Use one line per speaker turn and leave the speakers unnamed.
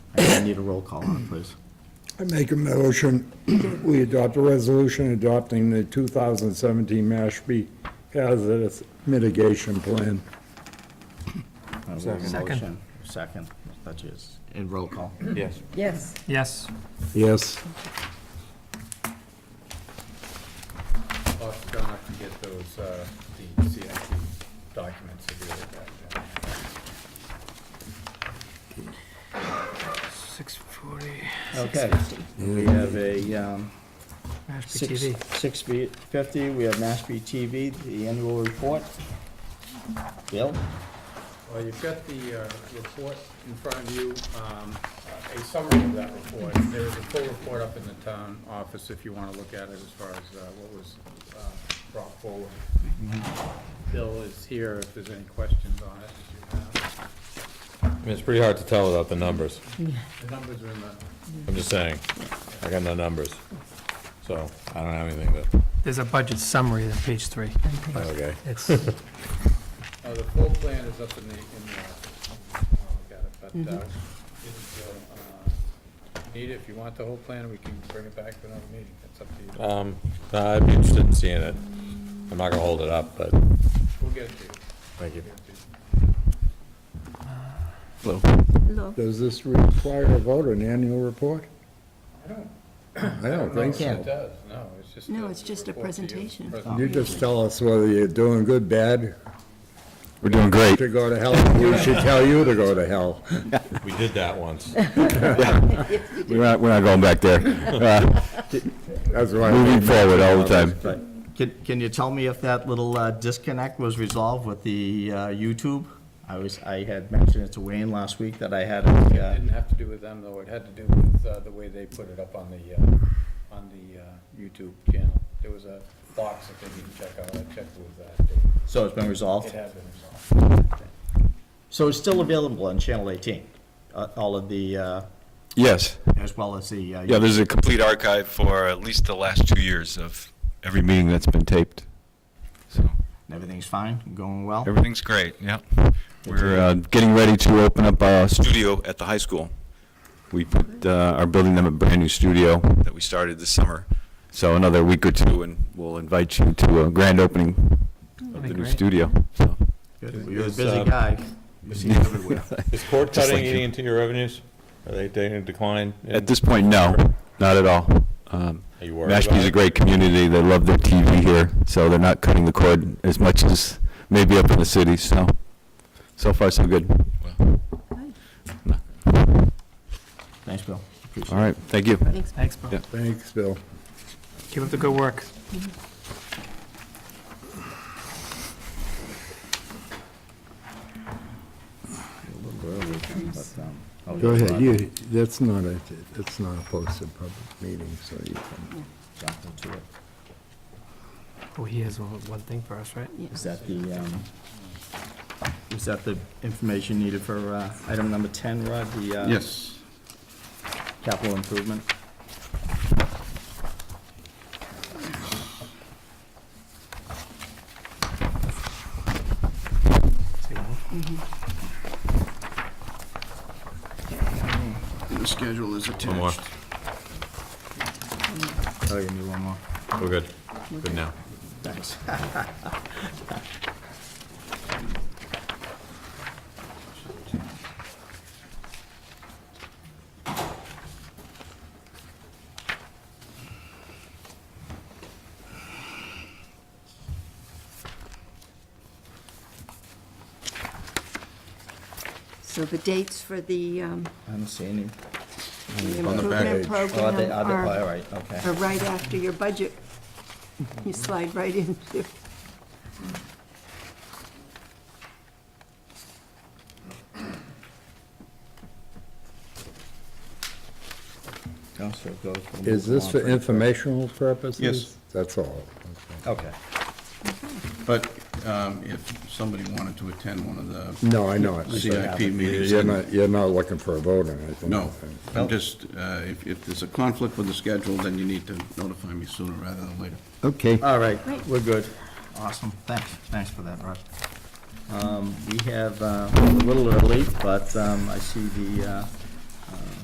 I need a roll call on, please.
I make a motion, we adopt a resolution adopting the 2017 Mashpee Hazardous Mitigation Plan.
Uh, we have a
Second.
motion. Second, that is, and roll call.
Yes.
Yes,
Yes,
Yes.
Also, don't have to get those, uh, the CIP documents if you look at them.
six forty,
Okay, we have a, um,
Mashpee
six,
TV.
six fi- fifty, we have Mashpee TV, the annual report. Bill?
Well, you've got the uh, report in front of you, um, a summary of that report. There is a full report up in the town office if you want to look at it as far as uh, what was uh, brought forward. Bill is here if there's any questions on it. that you have.
I mean, it's pretty hard to tell without the numbers.
The numbers are in the,
I'm just saying, I got no numbers. So I don't have anything to,
There's a budget summary on page three.
okay.
It's,
uh, the full plan is up in the, in the office. if you wanna Look at it, but uh, if you uh, need it, if you want the whole plan, we can bring it back to another meeting. That's up to you.
Um, no, I'd be interested in seeing it. I'm not gonna hold it up, but.
We'll get it to you.
Thank
We'll get
you.
it to you.
hello.
Does this require a vote, an annual report?
I don't
I don't think
No, It
so.
does, no, it's just.
No, it's just a
report to you.
presentation.
Pres-
You just tell us whether you're doing good, bad,
We're doing great.
to go to hell. We should tell you to go to hell.
We did that once.
We're not, we're not going back there. Uh,
That's why. I
Moving
make-
forward all the time.
But can, can you tell me if that little uh, disconnect was resolved with the uh, YouTube? I was, I had mentioned it to Wayne last week that I had,
It
uh,
didn't have to do with them, though, it had to do with uh, the way they put it up on the, uh, on the uh, YouTube channel. There was a box that they didn't check out, I checked with that, it
so it's been resolved?
had been resolved.
So it's still available on Channel 18, uh, all of the, uh,
Yes.
as well as the. uh,
Yeah, there's a complete archive for at least the last two years of every meeting that's been taped. So
Everything's fine, going well?
everything's great, yeah. We're uh, getting ready to open up a studio at the high school. We put, uh, are building them a brand-new studio that we started this summer. So another week or two, and we'll invite you to a grand opening of
be
the new
great.
studio. So
Good. uh, You're a
Is,
busy
um,
guy. You see it everywhere.
Is cord
Just
cutting
like you.
eating into your revenues? Are they taking a decline? in-
At this point, no, not at all. Um,
Are you worried about
Mashpee's a
it?
great community, they love their TV here, so they're not cutting the cord as much as maybe up in the city, so, so far, so good.
Thanks, Bill. Appreciate
All right, thank you.
Thanks,
thanks, Bill.
Yeah.
Thanks, Bill.
Keep up the good work.
it. But, um, oh,
Go
yeah,
ahead,
Rob,
you, that's not a, that's not a posted public meeting, so you can.
jump into it.
Oh, he has one one thing for us, right?
Is that the, um, is that the information needed for uh, item number 10, Rod? the, uh,
Yes.
Capital improvement?
See one?
The schedule is
One more.
Oh, you need one more.
We're good. Good now.
Thanks.
So the dates for the um,
I don't see any.
the
On the back
improvement
page.
Oh, are they,
program
are they, all
are
right, okay.
are right after your budget. You slide right into.
Oh, so it goes from-
Is this for informational purposes?
Yes.
That's all.
Okay.
But
um,
if somebody wanted to attend one of the
No, I know it.
CIP
You're not, you're not looking for a vote on anything.
No,
No.
I'm just, uh, if, if there's a conflict with the schedule, then you need to notify me sooner rather than later.
Okay.
All right,
Great.
we're good. Awesome, thanks, thanks for that, Rod. Um, We have, uh, a little early, but um, I see the uh, uh,